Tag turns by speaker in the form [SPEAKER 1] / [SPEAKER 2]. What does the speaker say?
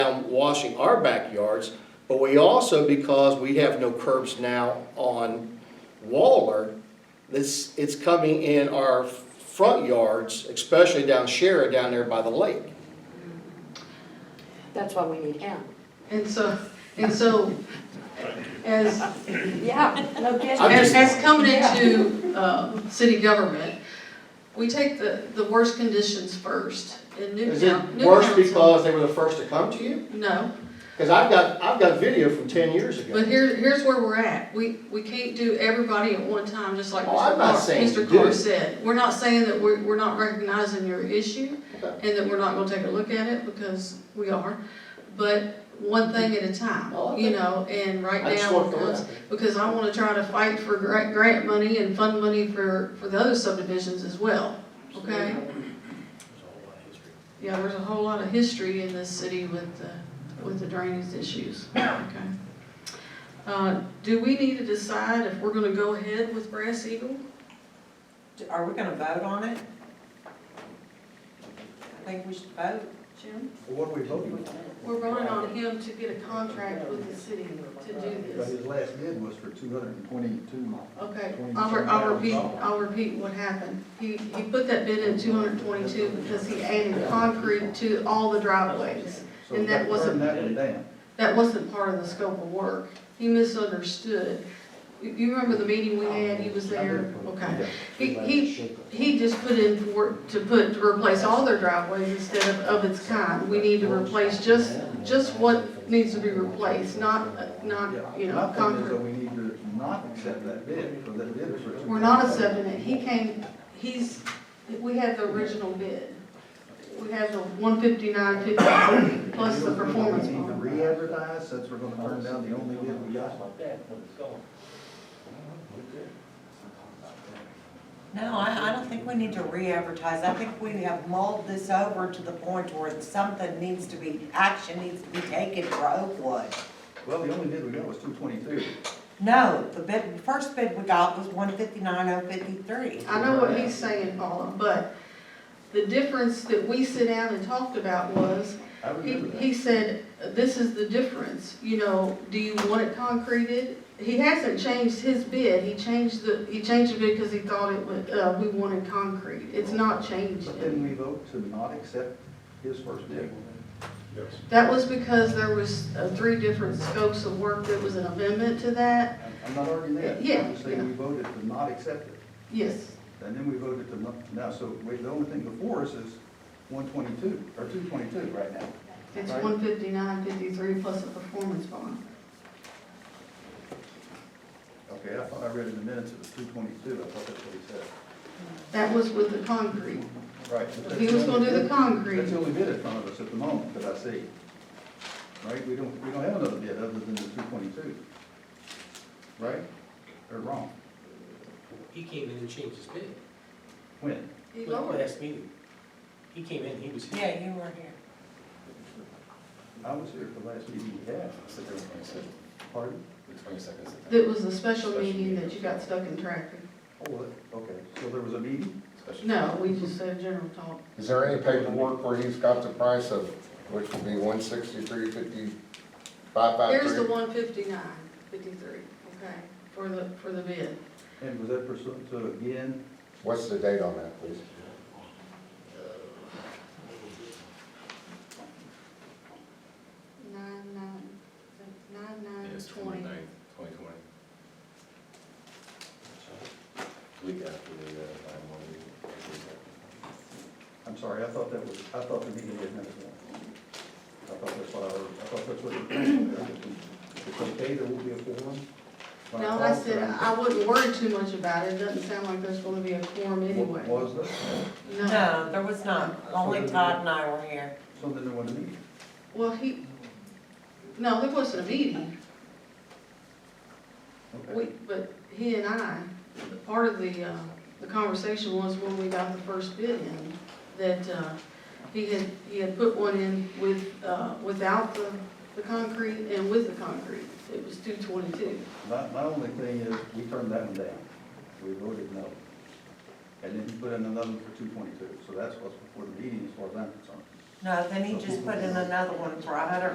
[SPEAKER 1] washing our backyards, but we also, because we have no curbs now on Waller, this, it's coming in our front yards, especially down Shara, down there by the lake.
[SPEAKER 2] That's why we need him.
[SPEAKER 3] And so, and so, as,
[SPEAKER 2] Yeah, no
[SPEAKER 1] I'm
[SPEAKER 3] as,
[SPEAKER 1] just-
[SPEAKER 2] kidding.
[SPEAKER 3] as coming into, um, city government, we take the, the worst conditions first in new
[SPEAKER 1] Is
[SPEAKER 3] coun-
[SPEAKER 1] it
[SPEAKER 3] new
[SPEAKER 1] worse
[SPEAKER 3] council.
[SPEAKER 1] because they were the first to come to you?
[SPEAKER 3] No,
[SPEAKER 1] Because I've got, I've got video from ten years
[SPEAKER 3] but
[SPEAKER 1] ago.
[SPEAKER 3] here, here's where we're at. We, we can't do everybody at one time, just like
[SPEAKER 1] Oh, I'm
[SPEAKER 3] Mr.
[SPEAKER 1] not
[SPEAKER 3] Carr,
[SPEAKER 1] saying
[SPEAKER 3] Mr.
[SPEAKER 1] do
[SPEAKER 3] Carr
[SPEAKER 1] it.
[SPEAKER 3] said. We're not saying that we're, we're not recognizing your issue
[SPEAKER 1] Okay.
[SPEAKER 3] and that we're not gonna take a look at it because we are. But one thing at a
[SPEAKER 1] Oh,
[SPEAKER 3] time,
[SPEAKER 1] okay.
[SPEAKER 3] you know, and right
[SPEAKER 1] I just
[SPEAKER 3] now,
[SPEAKER 1] want to know
[SPEAKER 3] because
[SPEAKER 1] that.
[SPEAKER 3] because I wanna try to fight for grant, grant money and fund money for, for the other subdivisions as well, okay? Yeah, there's a whole lot of history in this city with the, with the drainage issues, okay? Uh, do we need to decide if we're gonna go ahead with Brass Eagle?
[SPEAKER 4] Are we gonna vote on it? I think we should vote, Jim.
[SPEAKER 5] Well, What are we voting on?
[SPEAKER 3] We're running on him to get a contract with the city to do
[SPEAKER 5] But
[SPEAKER 3] this.
[SPEAKER 5] his last bid was for two hundred and twenty-two miles.
[SPEAKER 3] Okay, I'll, re- I'll repeat, I'll repeat what happened. He, he put that bid in two hundred twenty-two because he added concrete to all the driveways.
[SPEAKER 5] So
[SPEAKER 3] And that wasn't-
[SPEAKER 5] Turn that one down.
[SPEAKER 3] That wasn't part of the scope of work. He misunderstood. You, you remember the meeting we had, he was there? Okay. He, he, he just put in for, to put, to replace all their driveways instead of, of its kind. We need to replace just, just what needs to be replaced, not,
[SPEAKER 5] Yeah.
[SPEAKER 3] not, you know,
[SPEAKER 5] My thing is
[SPEAKER 3] concrete.
[SPEAKER 5] that we need to not accept that bid, because that bid was for.
[SPEAKER 3] We're not accepting it, he came, he's, we had the original bid. We had the one fifty-nine fifty plus the performance
[SPEAKER 5] We need to
[SPEAKER 3] bond.
[SPEAKER 5] re-advertise, since we're gonna turn down the only bid we got.
[SPEAKER 4] No, I, I don't think we need to re-advertise. I think we have mulled this over to the point where something needs to be, action needs to be taken for Oakwood.
[SPEAKER 5] Well, the only bid we got was two twenty-two.
[SPEAKER 4] No, the bid, the first bid we got was one fifty-nine oh fifty-three.
[SPEAKER 3] I know what he's saying, Paula, but the difference that we sit down and talked about was,
[SPEAKER 5] I
[SPEAKER 3] he,
[SPEAKER 5] remember that.
[SPEAKER 3] he said, this is the difference, you know, do you want it concreted? He hasn't changed his bid, he changed the, he changed the bid because he thought it would, uh, we wanted concrete. It's not changed.
[SPEAKER 5] But then we vote to not accept his first bid.
[SPEAKER 3] That was because there was uh, three different scopes of work, there was an amendment to that,
[SPEAKER 5] I'm I'm not arguing that.
[SPEAKER 3] Yeah,
[SPEAKER 5] I'm just saying we voted to not accept it.
[SPEAKER 3] yes.
[SPEAKER 5] And then we voted to not, now, so we- the only thing before us is one twenty-two, or two twenty-two right now.
[SPEAKER 3] It's
[SPEAKER 5] Right.
[SPEAKER 3] one fifty-nine, fifty-three plus a performance bond.
[SPEAKER 5] Okay, I thought I read in the minutes it was two twenty-two, I thought that's what he said.
[SPEAKER 3] That was with the concrete.
[SPEAKER 5] Right. but that's
[SPEAKER 3] He was gonna do the
[SPEAKER 5] only-
[SPEAKER 3] concrete.
[SPEAKER 5] That's the only bid in front of us at the moment that I see. Right, we don't, we don't have another bid other than the two twenty-two. Right? Or wrong?
[SPEAKER 6] He came in and changed his bid.
[SPEAKER 5] When?
[SPEAKER 3] He lowered it.
[SPEAKER 6] Last meeting. He came in, he was here.
[SPEAKER 4] Yeah, you were here.
[SPEAKER 5] I was here at the last meeting we had. Pardon?
[SPEAKER 3] It was a special meeting that you got stuck in traffic.
[SPEAKER 5] Oh, what? okay, so there was a meeting?
[SPEAKER 3] No, we just said general talk.
[SPEAKER 7] Is there any paperwork where he's got the price of, which will be one sixty-three fifty-five five
[SPEAKER 3] Here's the
[SPEAKER 7] three?
[SPEAKER 3] one fifty-nine, fifty-three, okay, for the, for the bid.
[SPEAKER 5] And was that pursuant to again?
[SPEAKER 7] What's the date on that, please?
[SPEAKER 3] Nine, nine, nine, nine, twenty.
[SPEAKER 8] twenty twenty. Week after the nine one
[SPEAKER 5] I'm sorry, I thought that was, I thought the meeting was next one. I thought that's what I heard, I thought that's what you It's okay, there will be a forum? When
[SPEAKER 3] No, I
[SPEAKER 5] called,
[SPEAKER 3] said,
[SPEAKER 5] I-
[SPEAKER 3] I wouldn't worry too much about it, it doesn't sound like there's gonna be a quorum anyway.
[SPEAKER 5] Was there?
[SPEAKER 3] No,
[SPEAKER 4] No, there was not. Only Todd and I were here.
[SPEAKER 5] So then there wasn't a meeting.
[SPEAKER 3] well, he, no, there wasn't a meeting,
[SPEAKER 5] Okay.
[SPEAKER 3] we, but he and I, part of the, uh, the conversation was when we got the first bid in, that, uh, he had, he had put one in with, uh, without the, the concrete and with the concrete, it was two twenty-two.
[SPEAKER 5] My, my only thing is, we turned that one down. We voted no. And then he put in another one for two twenty-two, so that's what's before the meeting as far as I'm concerned.
[SPEAKER 4] No, then he just put in another one for a hundred